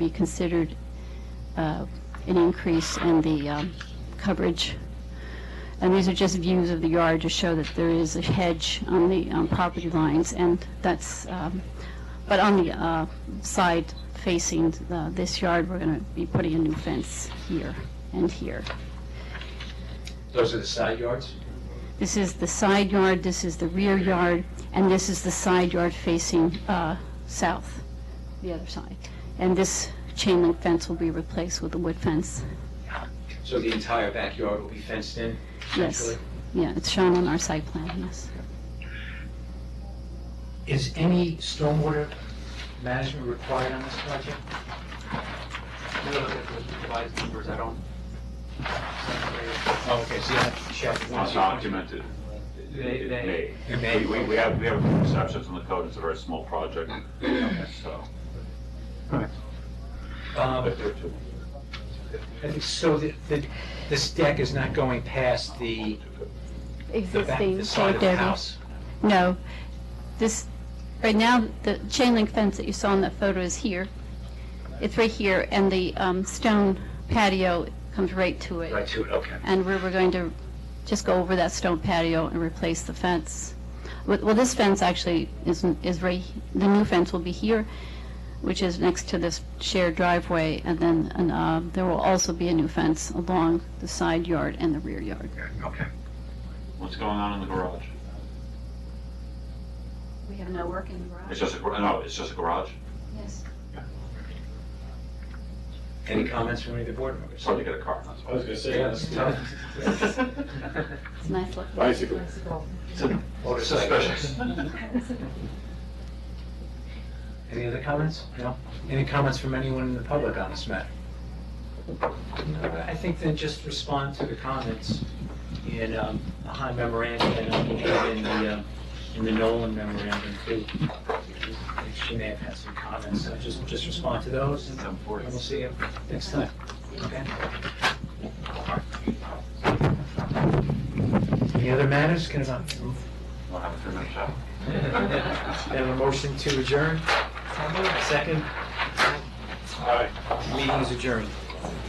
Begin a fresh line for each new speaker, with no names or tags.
be considered uh, an increase in the um, coverage. And these are just views of the yard to show that there is a hedge on the um, property lines, and that's, um, but on the uh, side facing the- this yard, we're going to be putting a new fence here and here.
Those are the side yards?
This is the side yard, this is the rear yard, and this is the side yard facing uh, south, the other side. And this chain link fence will be replaced with a wood fence.
So the entire backyard will be fenced in?
Yes.
Actually.
Yeah, it's shown on our site plan, yes.
Is any stormwater management required on this project?
No, look at those revised numbers, I don't.
Oh, okay, so you have to check.
It's documented.
They, they,
It may. We, we have, we have exceptions in the code, it's a very small project, so.
Um,
but there are two.
So the- the- this deck is not going past the the back,
Existing
the side of the house?
No. This, right now, the chain link fence that you saw in that photo is here. It's right here, and the um, stone patio comes right to it.
Right to it, okay.
And we were going to just go over that stone patio and replace the fence. Well, well, this fence actually isn't, is right, the new fence will be here, which is next to this shared driveway, and then, and, uh, there will also be a new fence along the side yard and the rear yard.
Okay.
What's going on in the garage?
We have no work in the garage.
It's just a, gar- no, it's just a garage?
Yes.
Any comments from any of the board members?
It's hard to get a car, that's
I was
why.
gonna say,
Yeah,
that's
it's
tough.
tough.
It's a nice looking.
Bicycle.
It's Suspicious.
Any other comments? No? Any comments from anyone in the public on this matter? No, I think then just respond to the comments in um, the High memorandum and I believe in the, um, in the Nolan memorandum too. She may have had some comments, so just, just respond to those and
Ten
and we'll
forty.
see you next time. Okay? Any other matters? Can I
We'll have a three minute chat.
have a motion to adjourn? Second?
All right.
Meeting is adjourned.